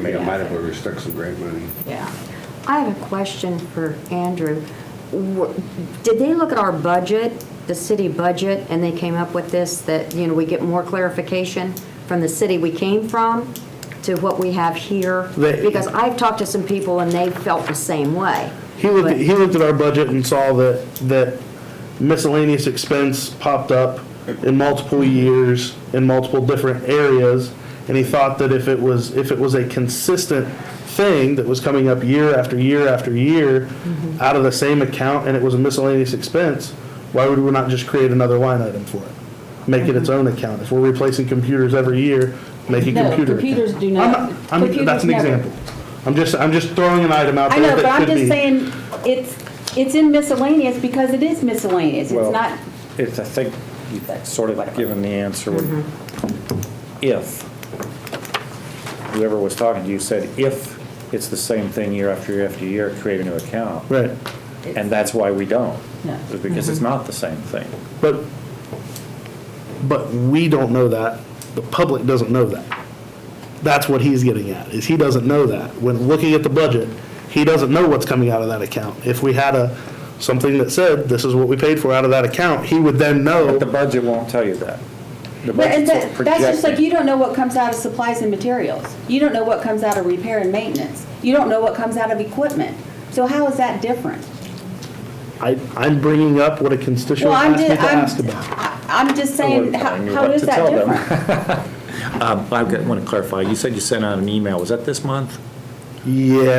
I mean, I might have to stuck some grant money. Yeah. I have a question for Andrew. Wh- Did they look at our budget, the city budget, and they came up with this, that, you know, we get more clarification from the city we came from to what we have here? They- Because I've talked to some people and they felt the same way. He looked, But- at- he looked at our budget and saw that, that miscellaneous expense popped up in multiple years, in multiple different areas, and he thought that if it was, if it was a consistent thing that was coming up year after year after year Mm-hmm. out of the same account and it was a miscellaneous expense, why would we not just create another line item for it? Make it its own account. If we're replacing computers every year, make a Mm-hmm. No, computer account. computers do I'm not- I'm, that's computers an never. example. I'm just, I'm just throwing an item out I there that know, could but be. I'm just saying, it's, it's in miscellaneous because it is miscellaneous. It's Well, not, It's, I think you've sort of given the answer. when- Mm-hmm. If, whoever was talking to you said, if it's the same thing year after year after year, create a new account. Right, And that's why we don't. No. Mm-hmm. is Because it's not the same thing. but, but we don't know that, the public doesn't know that. That's what he's getting at, is he doesn't know that. When looking at the budget, he doesn't know what's coming out of that account. If we had a, something that said, this is what we paid for out of that account, he would then know. But the budget won't tell you that. The but and budget's that- that's just like, projecting. you don't know what comes out of supplies and materials. You don't know what comes out of repair and maintenance. You don't know what comes out of equipment. So how is that different? I, I'm bringing up what a constituent Well, I'm asked me just, to ask I'm, about. I- I'm just saying, we're how telling you how what is to that tell them. different? Um, I want to clarify, you said you sent out an email, was that this month? Yeah,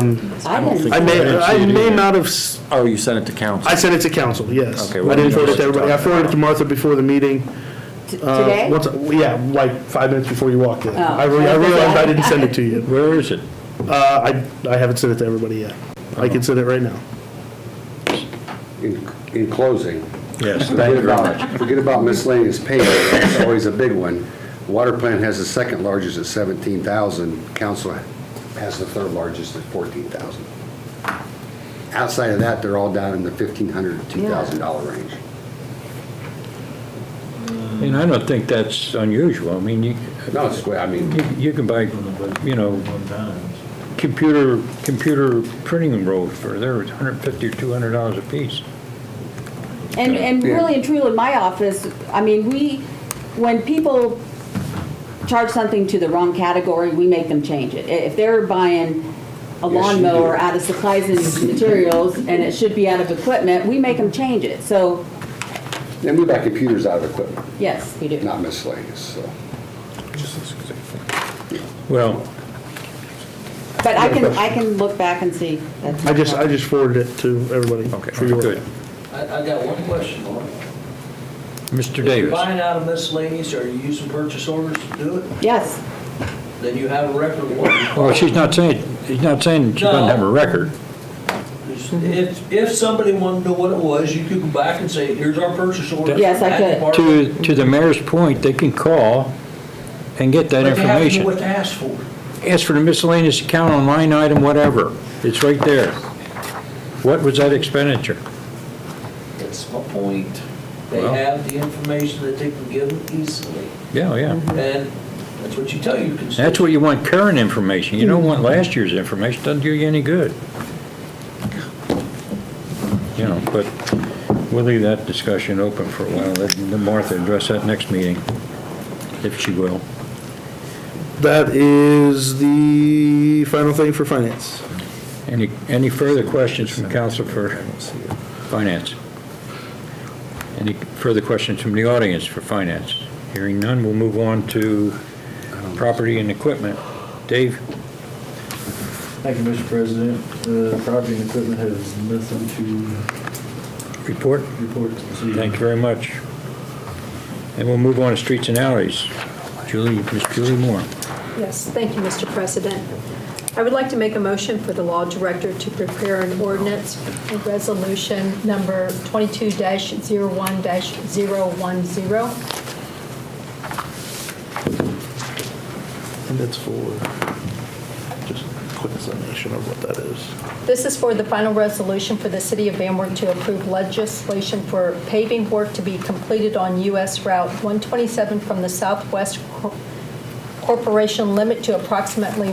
um, I don't didn't- think- I may, I may Actually, not have, s- Oh, you sent it to council? I sent it to council, yes. Okay, I well, didn't you forward know it to what you're everybody. I talking forwarded it to about. Martha before the meeting. T- Uh, Today? what's- Yeah, like five minutes before you walked in. Oh. I re- I realized I didn't send it to you. Where is it? Uh, I, I haven't sent it to everybody yet. I can send it right now. In, in closing, Yes. forget about, forget about miscellaneous payment, that's always a big one. Water plant has the second largest at 17,000, council has the third largest at 14,000. Outside of that, they're all down in the 1,500 to $2,000 range. And I don't think that's unusual. I mean, you, No, it's, I mean, you- you can buy, you know, computer, computer printing rolls for, they're 150 or 200 dollars a piece. And, and Yeah. really and truly, my office, I mean, we, when people charge something to the wrong category, we make them change it. I- If they're buying a you lawnmower do. out of supplies and materials, and it should be out of equipment, we make them change it. So, then we buy computers out of equipment, yes, we do. not miscellaneous, so. Well, But I can, I can look back and see. That's I just, my I just forwarded it to everybody okay, for your. good. I, I got one question, Laura. Mr. If you're Davis, buying out of miscellaneous, are you using purchase orders to do it? problem. Yes, Then you have a record of what you well, she's not saying, she's not saying she doesn't have a record. bought. If, if somebody wanted to know what it was, you could go back and say, here's our purchase order. Yes, I That could. department- To, to the mayor's point, they can call and get But that they have to know information. what to ask for. Ask for the miscellaneous account on line item, whatever. It's right there. What was that expenditure? That's my point. They Well- have the information that they can give them easily, Yeah, yeah. and that's what you tell your constituents. That's what you want, current information. You don't want last year's information, doesn't do you any good. You know, but we'll leave that discussion open for a while, let Martha address that next meeting, if she will. That is the final thing for finance. Any, any further questions from council for finance? Any further questions from the audience for finance? Hearing none, we'll move on to property and equipment. Dave? Thank you, Mr. President. The property and equipment has nothing to Report. report to the city. Thank you very much. And we'll move on to streets and alleys. Julie, Miss Julie Moore. Yes, thank you, Mr. President. I would like to make a motion for the law director to prepare an ordinance, for resolution number 22-01-010, And it's for just a quick summation of what that is. This is for the final resolution for the City of Van Wert to approve legislation for paving work to be completed on US Route 127 from the southwest cor- corporation limit to approximately